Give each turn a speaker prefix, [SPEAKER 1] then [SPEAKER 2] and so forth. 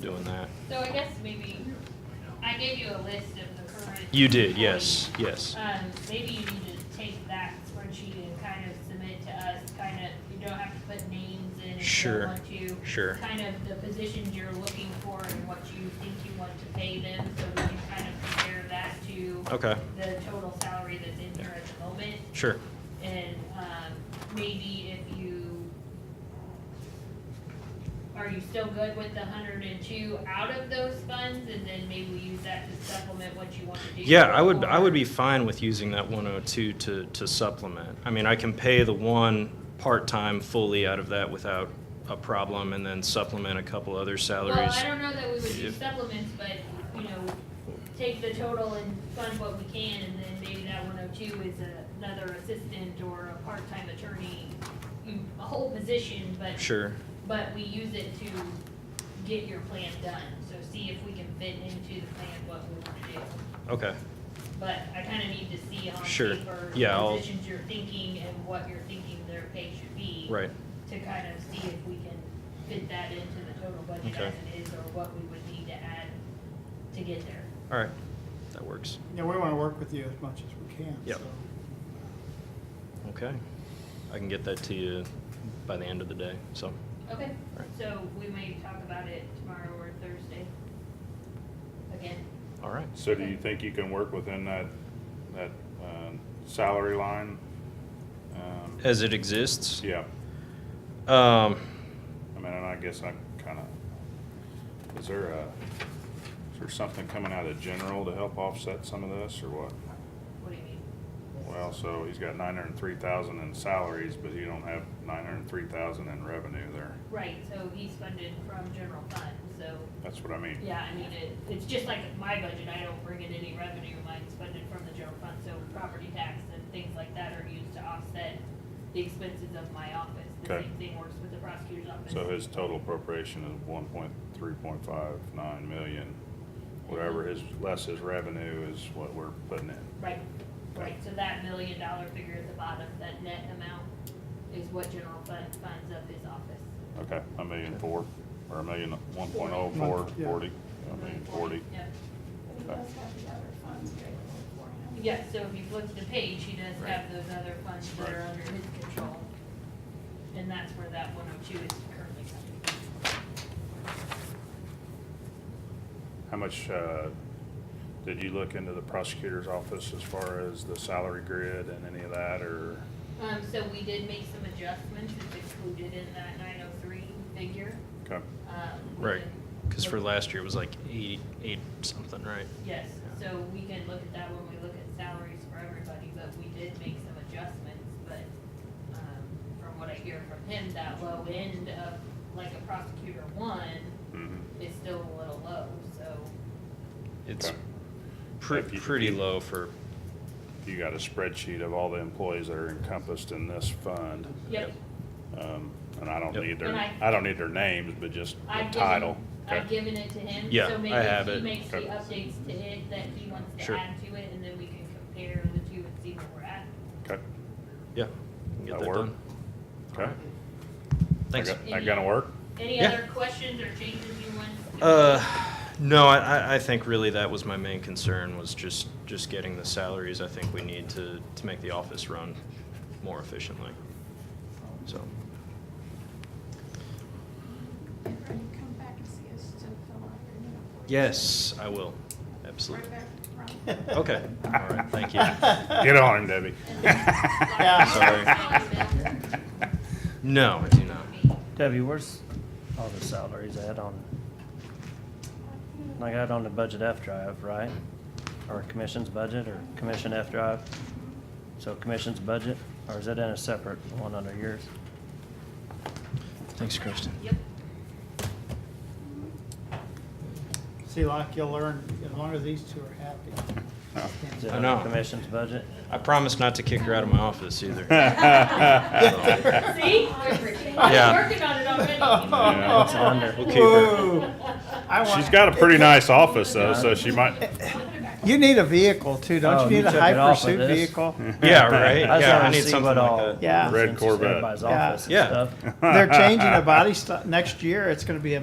[SPEAKER 1] doing that.
[SPEAKER 2] So I guess maybe, I gave you a list of the current.
[SPEAKER 1] You did, yes, yes.
[SPEAKER 2] Um, maybe you need to take that spreadsheet and kind of submit to us, kind of, you don't have to put names in if you
[SPEAKER 1] Sure.
[SPEAKER 2] don't want to.
[SPEAKER 1] Sure.
[SPEAKER 2] Kind of the positions you're looking for and what you think you want to pay them, so we can kind of compare that to
[SPEAKER 1] Okay,
[SPEAKER 2] the total salary that's in here at the moment.
[SPEAKER 1] sure.
[SPEAKER 2] And, um, maybe if you, are you still good with the hundred and two out of those funds? And then maybe we use that to supplement what you want to do.
[SPEAKER 1] Yeah, I would, I would be
[SPEAKER 2] Or-
[SPEAKER 1] fine with using that 102 to, to supplement. I mean, I can pay the one part-time fully out of that without a problem and then supplement a couple other
[SPEAKER 2] Well,
[SPEAKER 1] salaries.
[SPEAKER 2] I don't know that we would do
[SPEAKER 1] If-
[SPEAKER 2] supplements, but, you know, take the total and fund what we can, and then maybe that one oh two is a- another assistant or a part-time attorney, you- a whole position, but
[SPEAKER 1] Sure,
[SPEAKER 2] But we use it to get your plan done, so see if we can fit into the plan what we wanna do.
[SPEAKER 1] okay,
[SPEAKER 2] But I kinda need to see on
[SPEAKER 1] Sure.
[SPEAKER 2] paper
[SPEAKER 1] Yeah, I'll-
[SPEAKER 2] the positions you're thinking and what you're thinking their pay should be.
[SPEAKER 1] right,
[SPEAKER 2] To kind of see if we can fit that into the total budget
[SPEAKER 1] Okay.
[SPEAKER 2] as it is, or what we would need to add to get there.
[SPEAKER 1] all right, that works,
[SPEAKER 3] Yeah, we want to work with you as much as we can.
[SPEAKER 1] Yep.
[SPEAKER 3] so.
[SPEAKER 1] okay. I can get that to you by the end of the day, so,
[SPEAKER 2] Okay,
[SPEAKER 1] Right.
[SPEAKER 2] so we may talk about it tomorrow or Thursday. Again,
[SPEAKER 1] all right.
[SPEAKER 4] So do you think you can work within that, that um, salary line? Um,
[SPEAKER 1] As it exists?
[SPEAKER 4] Yeah,
[SPEAKER 1] Um,
[SPEAKER 4] I mean, and I guess I kind of, is there a, is there something coming out of general to help offset some of this, or what?
[SPEAKER 2] what do you mean?
[SPEAKER 4] Well, so he's got nine hundred and three thousand in salaries, but you don't have nine hundred and three thousand in revenue there.
[SPEAKER 2] Right, so he's funded from general fund, so
[SPEAKER 4] That's what I mean.
[SPEAKER 2] Yeah, I mean, it, it's just like my budget, I don't bring in any revenue, mine's funded from the general fund, so property tax and things like that are used to offset the expenses of my office. The
[SPEAKER 4] Okay.
[SPEAKER 2] same thing works with the prosecutor's office.
[SPEAKER 4] So his total appropriation is one point, three point five nine million. Whatever his, less his revenue is what we're putting in.
[SPEAKER 2] Right, right, so that million dollar figure at the bottom, that net amount is what general fund funds of his office.
[SPEAKER 4] Okay, a million four, or a million, one point
[SPEAKER 2] Forty.
[SPEAKER 4] oh four,
[SPEAKER 3] Yeah.
[SPEAKER 4] forty, a million forty.
[SPEAKER 2] Yeah,
[SPEAKER 5] But he does have the other funds available for him.
[SPEAKER 2] yeah, so if you flip to the page, he does
[SPEAKER 4] Right.
[SPEAKER 2] have those other funds that are
[SPEAKER 4] Right.
[SPEAKER 2] under his control. And that's where that one oh two is currently coming from.
[SPEAKER 4] How much, uh, did you look into the prosecutor's office as far as the salary grid and any of that, or?
[SPEAKER 2] Um, so we did make some adjustments, it's included in that nine oh three figure.
[SPEAKER 4] Okay,
[SPEAKER 2] Um, we
[SPEAKER 1] Right,
[SPEAKER 2] can-
[SPEAKER 1] because for last year it was like eight, eight something, right?
[SPEAKER 2] Yes, so we can look at that when we look at salaries for everybody, but we did make some adjustments, but, um, from what I hear from him, that low end of, like a prosecutor one
[SPEAKER 4] mhm.
[SPEAKER 2] is still a little low, so.
[SPEAKER 1] It's
[SPEAKER 4] Okay.
[SPEAKER 1] pre-
[SPEAKER 4] If you-
[SPEAKER 1] pretty low for,
[SPEAKER 4] You got a spreadsheet of all the employees that are encompassed in this fund,
[SPEAKER 2] Yep,
[SPEAKER 4] um, and I don't
[SPEAKER 1] Yep.
[SPEAKER 4] need their,
[SPEAKER 2] And I-
[SPEAKER 4] I don't need their names, but just the
[SPEAKER 2] I've
[SPEAKER 4] title.
[SPEAKER 2] given,
[SPEAKER 4] Okay.
[SPEAKER 2] I've given it to him,
[SPEAKER 1] Yeah,
[SPEAKER 2] so
[SPEAKER 1] I
[SPEAKER 2] maybe
[SPEAKER 1] have
[SPEAKER 2] if
[SPEAKER 1] it.
[SPEAKER 2] he makes the
[SPEAKER 4] Okay.
[SPEAKER 2] updates to it that he wants to
[SPEAKER 1] Sure.
[SPEAKER 2] add to it, and then we can compare the two and see where we're at.
[SPEAKER 4] Okay,
[SPEAKER 1] yeah. we can Get
[SPEAKER 4] That
[SPEAKER 1] that
[SPEAKER 4] work?
[SPEAKER 1] done.
[SPEAKER 4] okay.
[SPEAKER 1] Thanks.
[SPEAKER 4] That- That gonna work?
[SPEAKER 2] Any
[SPEAKER 1] Yeah.
[SPEAKER 2] other questions or changes you want? to-
[SPEAKER 1] Uh, no, I- I, I think really that was my main concern was just, just getting the salaries I think we need to, to make the office run more efficiently. So,
[SPEAKER 5] Remember, you come back and see us to fill out your new employees.
[SPEAKER 1] yes, I will, absolutely.
[SPEAKER 5] Right back from.
[SPEAKER 1] Okay, all right, thank you.
[SPEAKER 4] Get on him, Debbie.
[SPEAKER 2] Sorry.
[SPEAKER 1] No, I do not.
[SPEAKER 6] Debbie, where's all the salaries at on, I got on the budget F drive, right? Or commission's budget or commission F drive? So commission's budget, or is it in a separate one under yours?
[SPEAKER 1] Thanks, Kristen.
[SPEAKER 2] Yep,
[SPEAKER 3] See, like you'll learn, as long as these two are happy.
[SPEAKER 4] Oh.
[SPEAKER 6] Is it
[SPEAKER 1] I
[SPEAKER 6] under
[SPEAKER 1] know.
[SPEAKER 6] Commission's budget?
[SPEAKER 1] I promise not to kick her out of my office either.
[SPEAKER 2] see,
[SPEAKER 1] Yeah.
[SPEAKER 2] I'm working on it already.
[SPEAKER 3] Oh.
[SPEAKER 4] Yeah.
[SPEAKER 6] It's under.
[SPEAKER 1] We'll keep her.
[SPEAKER 3] Whoa. I want-
[SPEAKER 4] She's got a pretty nice office though, so she might,
[SPEAKER 3] You need a vehicle too, don't
[SPEAKER 6] Oh,
[SPEAKER 3] you
[SPEAKER 6] you
[SPEAKER 3] need a
[SPEAKER 6] took
[SPEAKER 3] high
[SPEAKER 6] it off of
[SPEAKER 3] pursuit
[SPEAKER 6] this?
[SPEAKER 3] vehicle?
[SPEAKER 1] Yeah, right?
[SPEAKER 6] I just
[SPEAKER 1] Yeah, I
[SPEAKER 6] wanna
[SPEAKER 1] need
[SPEAKER 6] see
[SPEAKER 1] something
[SPEAKER 6] what
[SPEAKER 1] like
[SPEAKER 6] all-
[SPEAKER 1] that.
[SPEAKER 3] Yeah.
[SPEAKER 4] Red
[SPEAKER 6] since it's
[SPEAKER 4] Corvette.
[SPEAKER 6] Everybody's
[SPEAKER 3] Yeah.
[SPEAKER 6] office and
[SPEAKER 1] Yeah.
[SPEAKER 6] stuff.
[SPEAKER 3] They're changing a body stock, next year it's gonna be a